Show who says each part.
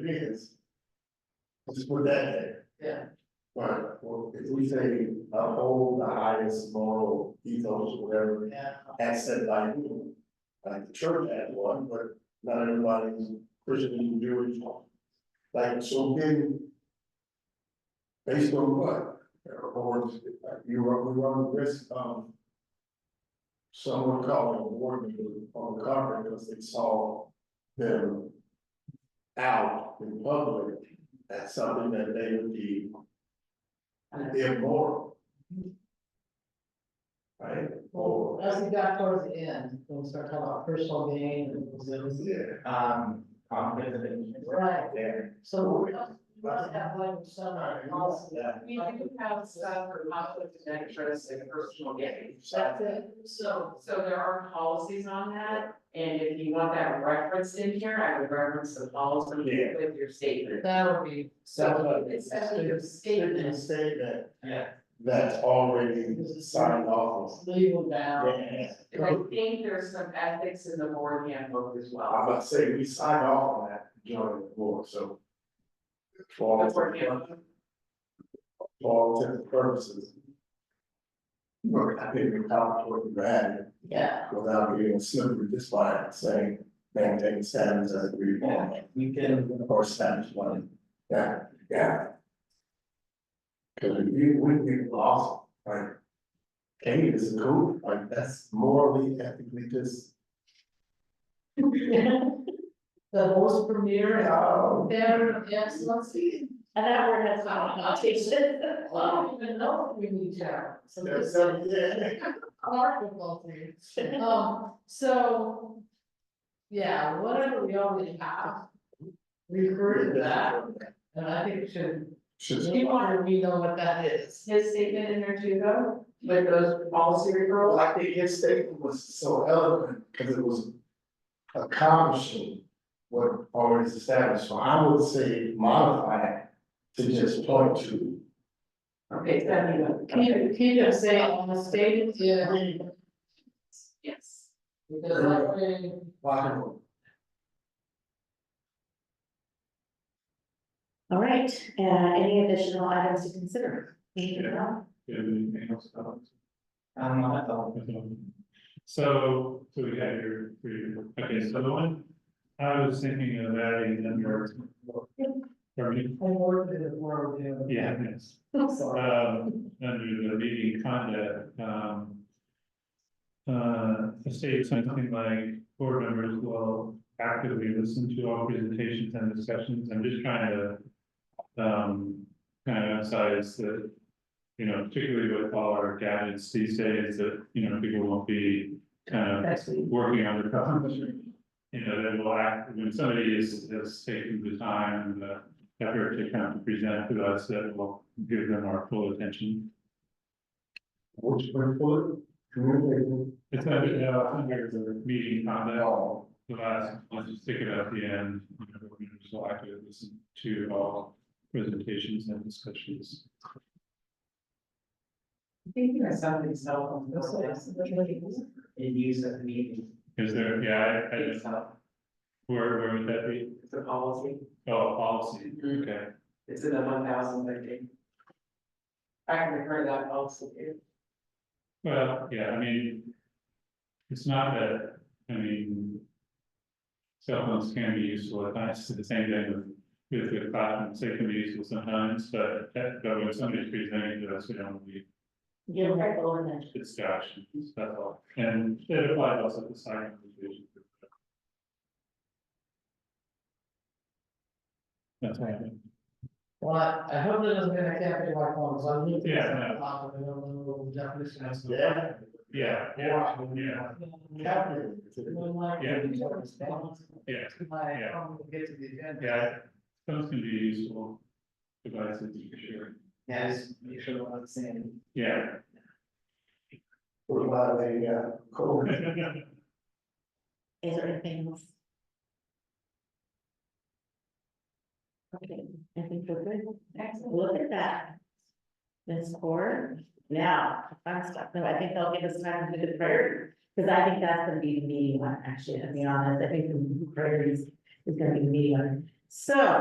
Speaker 1: It is. Just put that there.
Speaker 2: Yeah.
Speaker 1: Right, well, if we say uphold the highest moral ethos, whatever,
Speaker 2: Yeah,
Speaker 1: as said by who? Like the church had one, but not everybody's Christian, Jewish. Like, so then. Based on what? Or you run, we run the risk of. Someone calling a board meeting on the cover because they saw them. Out in public as something that they would be immoral. Right?
Speaker 2: well, as we got towards the end, we'll start talking about personal gain and those.
Speaker 1: Yeah.
Speaker 3: um, conflict of interest.
Speaker 2: Right,
Speaker 3: There,
Speaker 2: so we must, we must have one somewhere else.
Speaker 1: Yeah.
Speaker 2: We do
Speaker 4: have stuff for conflict of interest and personal gain.
Speaker 2: That's it, so,
Speaker 4: So, so there are policies on that, and if you want that referenced in here, I would reference the policy
Speaker 1: Yeah.
Speaker 4: with your statement.
Speaker 2: that'll be,
Speaker 4: So it's actually your
Speaker 1: Certain
Speaker 4: statement,
Speaker 1: statement
Speaker 3: yeah,
Speaker 1: that's already signed off
Speaker 2: legal
Speaker 1: of.
Speaker 2: bound.
Speaker 1: Yeah,
Speaker 4: and I think there's some ethics in the board handbook as
Speaker 1: I'm
Speaker 4: well.
Speaker 1: about to say, we signed off on that during the board, so. For all,
Speaker 4: The board
Speaker 1: for
Speaker 4: handbook.
Speaker 1: all intents and purposes. Look, I think we talked what we had
Speaker 2: Yeah,
Speaker 1: without being slippery just by saying maintain standards as we want,
Speaker 3: we can,
Speaker 1: or standards one. Yeah, yeah. Cause you would be lost, like. Hey, this is cool, like that's morally ethically just.
Speaker 2: the host premier,
Speaker 1: Oh.
Speaker 2: their excellency. And that word has not, not taken. I don't even know if we need to. So this is- Article thing. Um, so. Yeah, whatever we already have. Refer to that, and I think it should,
Speaker 1: Should,
Speaker 2: he wanted me to know what that is.
Speaker 4: His statement in there too, though, with those policy
Speaker 1: well,
Speaker 4: referrals,
Speaker 1: I think his statement was so eloquent, because it was accomplishing what already is established, so I would say modify it to just point to.
Speaker 4: okay, so,
Speaker 2: Keep, keep it saying on the stated, yeah,
Speaker 4: yes.
Speaker 2: because that way,
Speaker 1: Why?
Speaker 5: All right, uh, any additional items to consider? Anything else?
Speaker 6: Do you have anything else about
Speaker 3: um, I thought,
Speaker 6: it? So, so we had your, three. okay, so the one, I was thinking of adding number. Pardon
Speaker 2: I worked it, we're doing.
Speaker 6: me? Yeah, yes,
Speaker 2: I'm sorry.
Speaker 6: um, under the meeting conduct, um. Uh, state something like board members will actively listen to all presentations and discussions, I'm just trying to. Um, kind of emphasize that, you know, particularly with all our gadgets these days, that, you know, people won't be. Kind of working on their problems, you know, they will act, when somebody is, is taking the time uh, and the effort to come and present to us, that will give them our full attention. uh,
Speaker 1: Which went forward, communicating.
Speaker 6: It's not, you know, I think there's a meeting on that,
Speaker 1: all.
Speaker 6: the last, let's just stick it at the end, you know, we're gonna just like to listen to all presentations and discussions.
Speaker 3: thinking of something cell phone, those things, in use of meeting. uh,
Speaker 6: Is there, yeah, I, I, don't-
Speaker 4: So,
Speaker 6: where, where would that be?
Speaker 4: It's a policy.
Speaker 6: Oh, policy, okay.
Speaker 4: It's in the one thousand thirteen. I can refer to that also.
Speaker 6: Well, yeah, I mean. It's not that, I mean. Cell phones can be useful at times, it's the same thing with, with the platforms, they can be useful sometimes, but that, but when somebody's presenting to us, we don't need
Speaker 5: Give them their full attention.
Speaker 6: distraction, that's all. And it applies also to sign language. That's right.
Speaker 2: Well, I I hope that doesn't mean I can't pick my phone, so I'm. looking at
Speaker 6: Yeah, no.
Speaker 2: the top, and I don't know what the definition is.
Speaker 1: Yeah.
Speaker 6: Yeah, yeah, yeah,
Speaker 1: Happening.
Speaker 2: Would like
Speaker 6: Yeah.
Speaker 2: to be able to balance
Speaker 6: yeah,
Speaker 2: My,
Speaker 6: Yeah.
Speaker 2: um, get to the agenda.
Speaker 6: yeah, phones can be useful devices, for sure,
Speaker 3: Yeah, just make sure what I'm saying.
Speaker 6: yeah.
Speaker 1: What about a, uh, COVID?
Speaker 5: Is there anything else? Okay, I think we're good.
Speaker 4: Excellent.
Speaker 5: Look at that. This core, now, the fun stuff, no, I think they'll give us time to do the prayer, because I think that's gonna be the meeting one, actually, to be honest, I think the prayer is, is gonna be the meeting one. So,